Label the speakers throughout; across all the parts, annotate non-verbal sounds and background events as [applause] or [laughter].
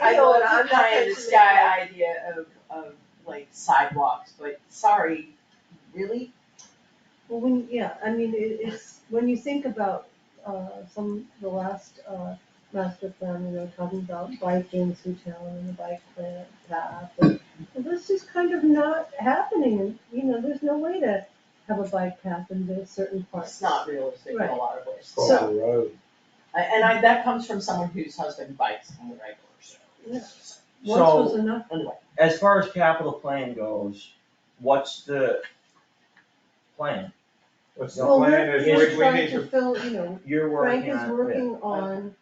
Speaker 1: I know, and
Speaker 2: it's
Speaker 1: I'm not
Speaker 2: a pie in the
Speaker 1: into the guy idea of, of like sidewalks, but sorry, really?
Speaker 2: Well, when, yeah, I mean, it, it's, when you think about, uh, some, the last, uh, master plan, you know, talking about biking through town and the bike plan- path, and and that's just kind of not happening, and, you know, there's no way to have a bike path in the certain parts.
Speaker 1: It's not realistic in a
Speaker 2: Right.
Speaker 1: lot of ways.
Speaker 2: Cool.
Speaker 1: So,
Speaker 3: Across the road,
Speaker 1: I- and I, that comes from someone whose husband bikes on the regular, so.
Speaker 2: Yeah. Once was
Speaker 4: So,
Speaker 2: enough,
Speaker 1: Anyway,
Speaker 4: as far as capital plan goes, what's the plan?
Speaker 3: what's the
Speaker 2: well,
Speaker 3: plan
Speaker 2: we're,
Speaker 3: is
Speaker 2: we're
Speaker 3: we, we
Speaker 2: trying
Speaker 3: need
Speaker 2: to
Speaker 3: to,
Speaker 2: fill, you know,
Speaker 4: You're
Speaker 2: Frank
Speaker 4: working
Speaker 2: is
Speaker 4: on it.
Speaker 2: working on,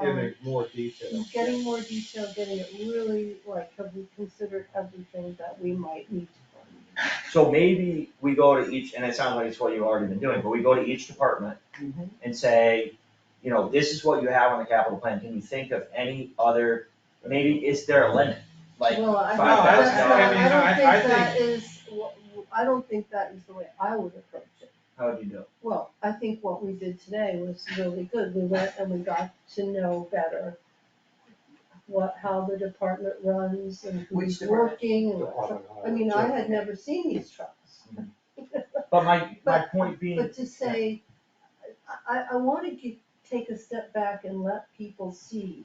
Speaker 3: give
Speaker 2: um,
Speaker 3: it more detail.
Speaker 2: he's getting more detail, getting it really, like, have we considered everything that we might need to fund?
Speaker 4: So maybe we go to each, and it sounds like it's what you've already been doing, but we go to each department
Speaker 2: Mm-hmm.
Speaker 1: Mhm.
Speaker 4: and say, you know, this is what you have on the capital plan, can you think of any other, maybe is there a limit? Like,
Speaker 2: Well, I
Speaker 4: five
Speaker 2: don't-
Speaker 4: thousand dollars.
Speaker 2: I don't
Speaker 3: I mean,
Speaker 2: think
Speaker 3: I- I
Speaker 2: that is, what- I don't think that is the way I would approach it.
Speaker 4: how would you do? it?
Speaker 2: Well, I think what we did today was really good. We went and we got to know better what, how the department runs and
Speaker 1: Which
Speaker 2: who's
Speaker 1: department?
Speaker 2: working. and what truck- I mean, I had never seen these trucks.
Speaker 4: But my, my point being,
Speaker 2: But to say, I, I- I wanna ge- take a step back and let people see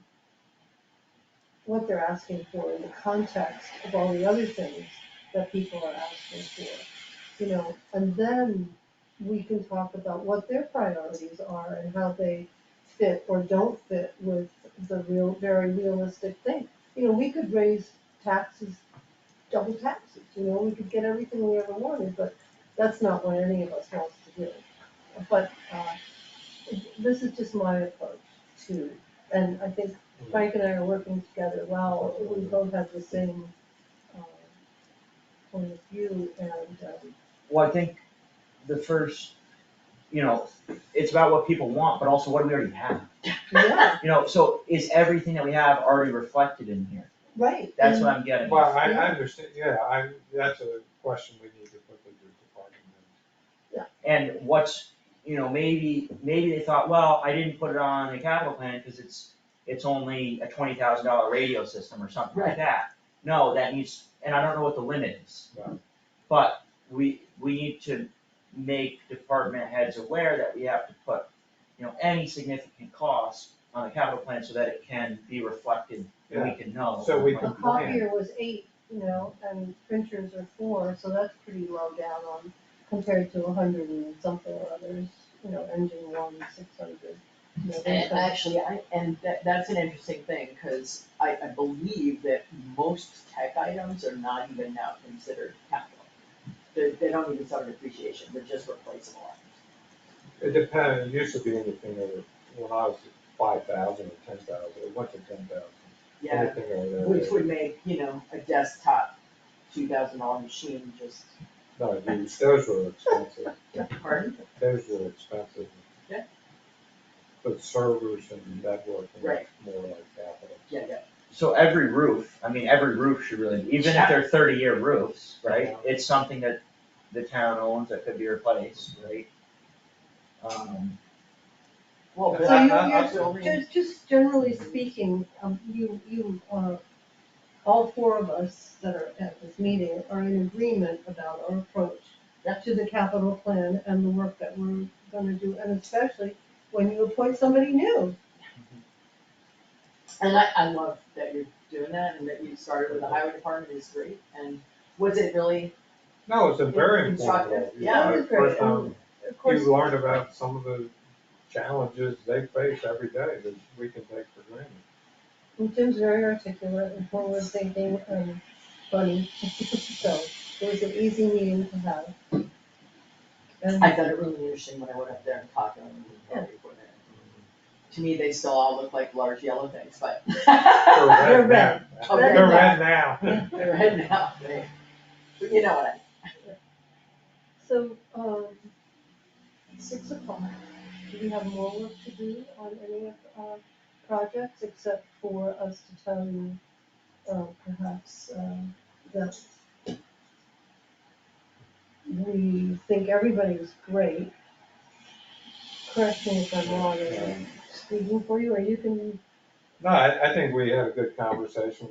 Speaker 2: what they're asking for in the context of all the other things that people are asking for. You know, and then we can talk about what their priorities are and how they fit or don't fit with the real, very realistic thing. You know, we could raise taxes, double taxes, you know, we could get everything we ever wanted, but that's not what any of us wants to do. But, uh, this is just my approach to, and I think
Speaker 4: Mm-hmm.
Speaker 2: Frank and I are working together well, we both have the same, um, point of view and, um,
Speaker 4: well, I think the first, you know, it's about what people want, but also what do we already have?
Speaker 2: yeah,
Speaker 4: You know, so is everything that we have already reflected in here?
Speaker 2: right.
Speaker 4: [laughs] That's
Speaker 2: and-
Speaker 3: Mm.
Speaker 4: what I'm getting.
Speaker 3: Well, I,
Speaker 2: Yeah.
Speaker 3: I understand, yeah, I, that's a question we need to put to the department.
Speaker 4: And what's, you know, maybe, maybe they thought, well, I didn't put it on the capital plan because it's, it's only a twenty thousand dollar radio system or something like
Speaker 1: Right.
Speaker 4: that. No, that needs, and I don't know what the limit is.
Speaker 3: Right.
Speaker 4: But we, we need to make department heads aware that we have to put, you know, any significant cost on the capital plan so that it can be reflected and we can know.
Speaker 3: So we
Speaker 2: A
Speaker 3: can-
Speaker 2: copier was eight, you know, and printers are four, so that's pretty low down on, compared to a hundred and something or others, you know, engine one, six hundred. you know, those
Speaker 1: And
Speaker 2: kinds of-
Speaker 1: actually, I, and that, that's an interesting thing, cause I, I believe that most tech items are not even now considered capital. They, they don't even suffer depreciation, they're just replaceable items.
Speaker 3: It depends, it used to be anything over, when I was five thousand or ten thousand, it went to ten thousand.
Speaker 1: Yeah,
Speaker 3: Anything over
Speaker 1: which
Speaker 3: there,
Speaker 1: would make, you know, a desktop two thousand dollar machine just,
Speaker 3: no, these- those were expensive,
Speaker 1: pardon?
Speaker 3: those were expensive.
Speaker 1: Yeah.
Speaker 3: But servers and networking,
Speaker 1: Right.
Speaker 3: that's more like capital.
Speaker 1: Yeah, yeah,
Speaker 4: So every roof, I mean, every roof should really, even if they're thirty year roofs, right, it's something that the town owns that could be replaced, right? Um,
Speaker 1: well,
Speaker 3: So
Speaker 1: but
Speaker 2: So
Speaker 3: I-
Speaker 2: you,
Speaker 3: I- I-
Speaker 2: you're, just, just generally speaking, um, you, you, uh, all four of us that are at this meeting are in agreement about our approach
Speaker 1: Yeah.
Speaker 2: to the capital plan and the work that we're gonna do, and especially when you appoint somebody new.
Speaker 1: And I, I love that you're doing that and that you started with the highway department is great, and was it really,
Speaker 3: No, it's a very
Speaker 1: Constructive,
Speaker 3: informative, you
Speaker 1: yeah,
Speaker 3: know,
Speaker 2: it was very,
Speaker 3: first time
Speaker 2: um, Of course,
Speaker 3: You learn about some of the challenges they face every day that we can take for
Speaker 2: [laughs]
Speaker 3: granted.
Speaker 2: Jim's very articulate and forward thinking and funny, [laughs] so it was an easy meeting to have. And-
Speaker 1: I found it really interesting when I went up there and talked to them before that. To me, they still all look like large yellow things, but. [laughs]
Speaker 3: They're
Speaker 2: They're
Speaker 3: red now.
Speaker 2: red.
Speaker 1: Oh,
Speaker 3: They're
Speaker 1: red
Speaker 3: red now. [laughs]
Speaker 1: They're heading out, they, but you know what I mean.
Speaker 2: So, um, six o'clock, do we have more work to do on any of our projects except for us to tell you, uh, perhaps, uh, that we think everybody is great. Correct me if I'm wrong, or I'm speaking for you, or you can
Speaker 3: No, I, I think we had a good conversation